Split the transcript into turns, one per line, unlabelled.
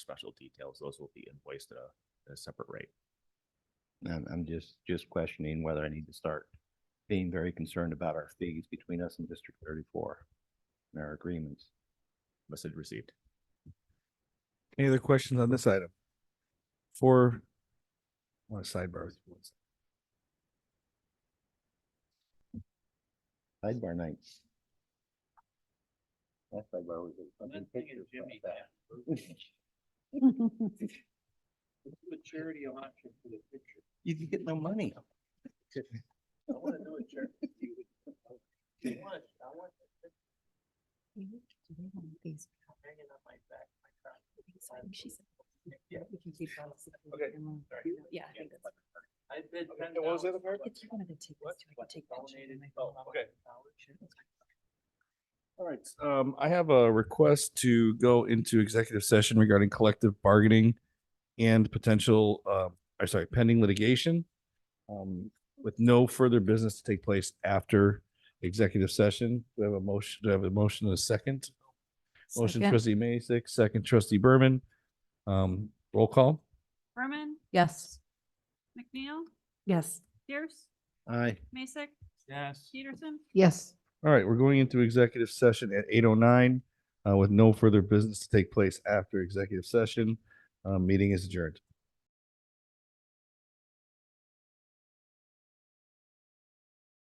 special details, those will be invoiced at a, at a separate rate.
I'm, I'm just, just questioning whether I need to start being very concerned about our fees between us and District thirty-four and our agreements.
Message received.
Any other questions on this item? For, want to sidebar?
Sidebar nights. That's sidebar was. a- something
Lynn and
pictures
Jimmy
about
have
that.
Let's do a charity auction for the picture.
You can get no money.
I wanna do a charity. with you. I want, I want that picture hanging on my back, my crown. Yeah. Okay. Sorry.
Yeah, I think that's-
I bid ten
what was
dollars.
the other part?
If you wanted to take
What?
this, too, I could take that. too,
Donated.
and I-
Oh, okay.
All right, um, I have a request to go into executive session regarding collective bargaining and potential, um, I'm sorry, pending litigation. Um, with no further business to take place after executive session. Do I have a motion? Do I have a motion and a second? Motion trustee Mason, second trustee Berman. Um, roll call.
Berman,
Yes.
McNeil,
Yes.
Pierce,
Aye.
Mason,
Yes.
Peterson,
Yes.
All right, we're going into executive session at eight oh nine, uh, with no further business to take place after executive session. Uh, meeting is adjourned.